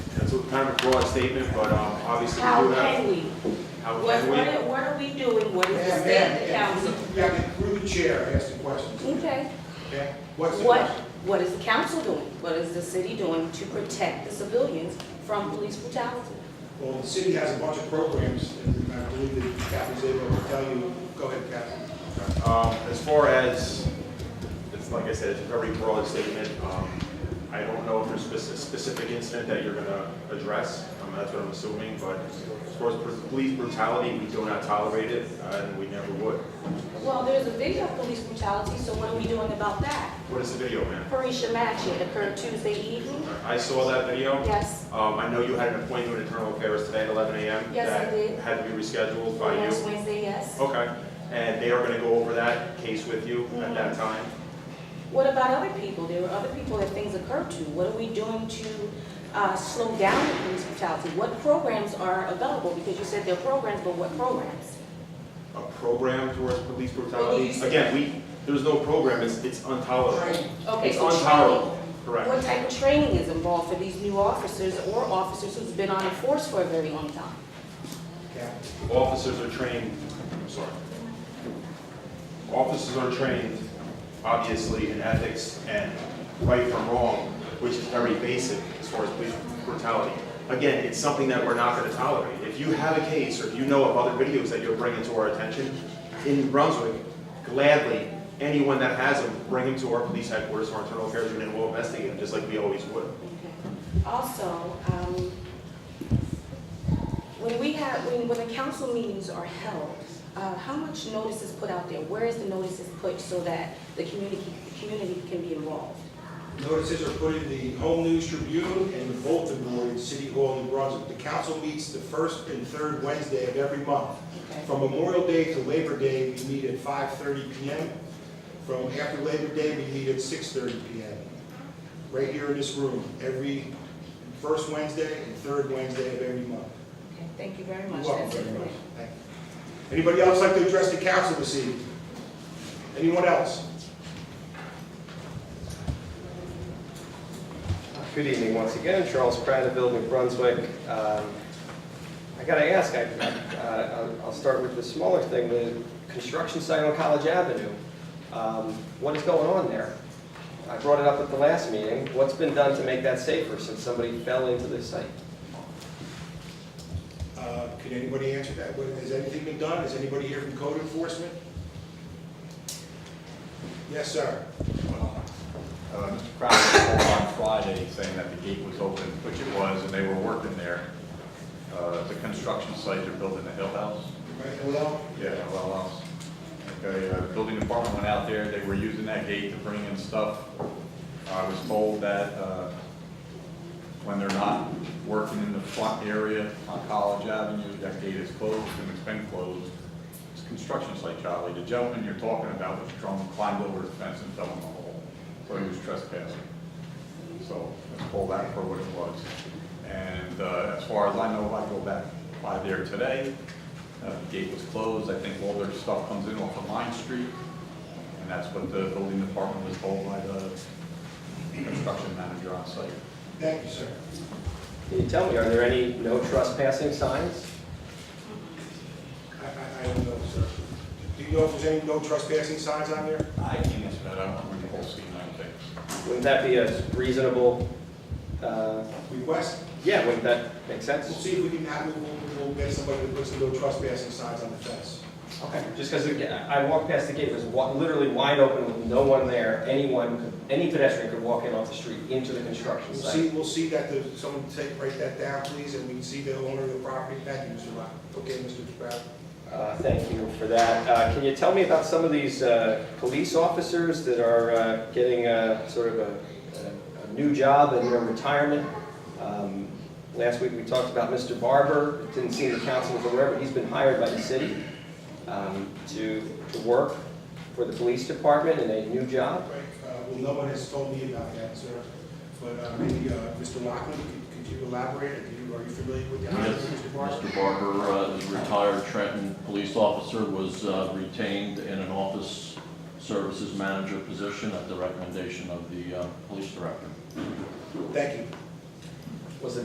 kind of a broad statement, but um, obviously we How do have. can we? How What, can we? what are- what are we doing? What is the Ma'am, state of the ma'am, council? through- yeah, through the chair, ask the questions. Okay. Okay? What's the Mm-hmm. What, question? what is the council doing? What is the city doing to protect the civilians from police brutality? Well, the city has a bunch of programs, and I believe that Kathy's able to tell you, go ahead, Kathy. Um, As far as, it's like I said, it's a very broad statement. Um, I don't know if there's speci- specific incident that you're gonna address, Um, that's what I'm assuming, but as far as pr- police brutality, we do not tolerate it, uh, and we never would. Well, there's a video of police brutality, so what are we doing about that? What is the video, man? Parisha Match, it occurred Tuesday evening? I saw that video. Yes. Um, I know you had an appointment with internal affairs today at 11 a.m. Yes, I did. That had to be rescheduled by you. Last Wednesday, yes. Okay, and they are gonna go over that case with you at that Mhm. time. What about other people? There were other people that things occurred to. What are we doing to uh, slow down the police brutality? What programs are available? Because you said there are programs, but what programs? a program towards police Well, brutality. you said- Again, we, there's no program, it's, it's intolerable. Okay, It's so intolerable, training. What correct. type of training is involved for these new officers or officers who's been on the force for a very long time? Kathy. Officers are trained, I'm sorry. Officers are trained, obviously, in ethics and right from wrong, which is very basic as far as police brutality. Again, it's something that we're not gonna tolerate. If you have a case, or if you know of other videos that you're bringing to our attention, in New Brunswick, gladly, anyone that has them, bring them to our police headquarters, our internal affairs unit, and we'll investigate them, just like we always would. Okay. Also, um, when we have, when, when the council meetings are held, uh, how much notice is put out there? Where is the notice is put so that the community, the community can be involved? Notices are put in the Home News Tribune and the bulletin board in City Hall in Brunswick. The council meets the first and third Wednesday of every month. Okay. From Memorial Day to Labor Day, we meet at 5:30 PM. From after Labor Day, we meet at 6:30 PM. Right here in this room, every first Wednesday and third Wednesday of every month. Okay, Thank you very You're much. welcome That's it very for much. me. Thank you. Anybody else like to address the council this evening? Anyone else? Good evening once again, Charles Prattville, New Brunswick. Um, I gotta ask, I- uh, I'll I'll start with the smaller thing, the construction site on College Avenue. Um, What is going on there? I brought it up at the last meeting, what's been done to make that safer since somebody fell into the site? Uh, Can anybody answer that? What- Has anything been done? Is anybody here from code enforcement? Yes, sir. Uh, Mr. Crowder called on Friday saying that the gate was open, which it was, and they were working there. Uh, The construction site, they're building a hill house. Right, hello? Yeah, a well house. Okay, uh, building department went out there, they were using that gate to bring in stuff. I was told that uh, when they're not working in the front area on College Avenue, that gate is closed and it's been closed. It's a construction site, Charlie. The gentleman you're talking about was drunk, climbed over the fence and fell in the hole, so he was trespassing. So let's call that for what it was. And uh, as far as I know, if I go back by there today, uh, the gate was closed. I think all their stuff comes in off of Line Street. And that's what the building department was told by the construction manager on site. Thank you, sir. Can you tell me, are there any no trespassing signs? I- I I don't know, sir. Do you know if there's any no trespassing signs on there? I can't answer that. I don't remember the whole scene, I don't think. Wouldn't that be a reasonable, uh, Request? yeah, wouldn't that make sense? We'll see if we can have, we'll- we'll get somebody to put some no trespassing signs on the fence. Okay, just because I walked past the gate, it was wa- literally wide open with no one there, anyone, could- any pedestrian could walk in off the street into the construction We'll see, site. we'll see that, the- someone take, write that down, please, and we can see the owner of the property. Thank you, Mr. Rock. Okay, Mr. Brown. Uh, Thank you for that. Uh, Can you tell me about some of these uh, police officers that are uh, getting uh, sort of a- a a new job and their retirement? Um, Last week, we talked about Mr. Barber, It didn't seem the council was aware, but he's been hired by the city um, to to work for the police department in a new job. Right, uh, well, no one has told me about that, sir, but uh, maybe uh, Mr. Lockwood, could could you elaborate? Are you- are you familiar with the hiring of Yes, Mr. Barber? Mr. Barber, uh, is a retired Trenton police officer, was uh, retained in an office services manager position at the recommendation of the uh, police director. Thank you.